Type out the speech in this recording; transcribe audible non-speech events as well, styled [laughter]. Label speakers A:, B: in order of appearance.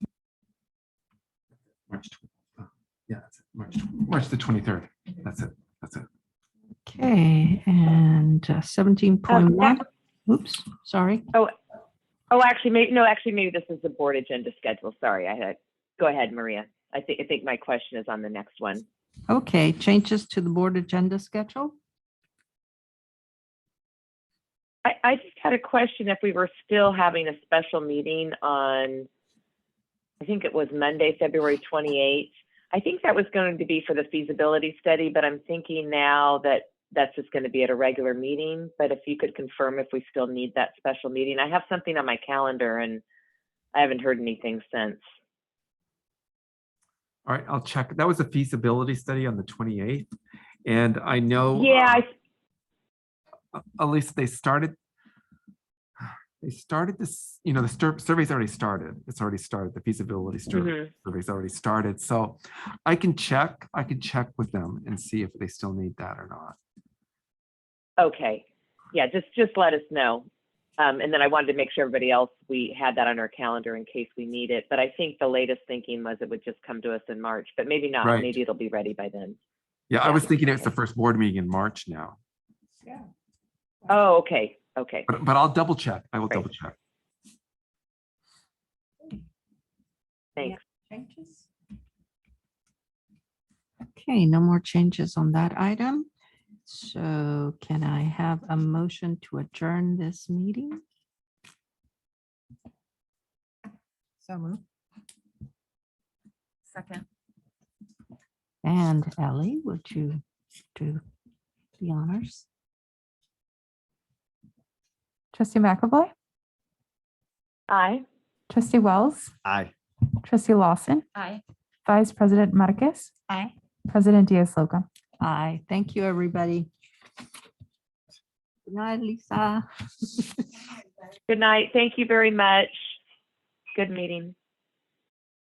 A: March, tw- uh, yeah, that's it, March, tw- March the 23rd. That's it. That's it.
B: Okay, and uh, 17.1,
C: that-
B: oops, sorry.
C: Oh, actually, maybe, no, actually, maybe this is the board agenda schedule. Sorry, I had, go ahead, Maria. I think, I think my question is on the next one.
B: Okay, changes to the board agenda schedule?
C: I, I just had a question if we were still having a special meeting on, I think it was Monday, February 28th. I think that was going to be for the feasibility study, but I'm thinking now that that's just going to be at a regular meeting. But if you could confirm if we still need that special meeting, I have something on my calendar and I haven't heard anything since.
A: All right, I'll check. That was a feasibility study on the 28th. And I know.
C: Yeah,
A: um,
C: I
A: uh, at least they started, they started this, you know, the stur- survey's already started. It's already started. The feasibility survey
C: mhm.
A: survey's already started. So I can check, I can check with them and see if they still need that or not.
C: Okay, yeah, just, just let us know. Um, and then I wanted to make sure everybody else, we had that on our calendar in case we need it. But I think the latest thinking was it would just come to us in March, but maybe not.
A: Right.
C: Maybe it'll be ready by then.
A: Yeah, I
C: Yeah,
A: was thinking it's the
C: okay.
A: first board meeting in March now,
C: Oh, okay, okay.
A: but, but I'll double check. I will
C: Great.
A: double check.
C: Thanks.
B: Changes? Okay, no more changes on that item. So can I have a motion to adjourn this meeting?
D: So moved. Second.
B: And Ellie, would you do the honors?
E: Trustee McAvoy,
C: Aye.
E: Trustee Wells,
F: Aye.
E: Trustee Lawson,
D: Aye.
E: Vice President Marquez,
D: Aye.
E: President Diaz-Solom.
B: Aye, thank you, everybody. Good night, Lisa. [laughs]
C: Good night. Thank you very much. Good meeting.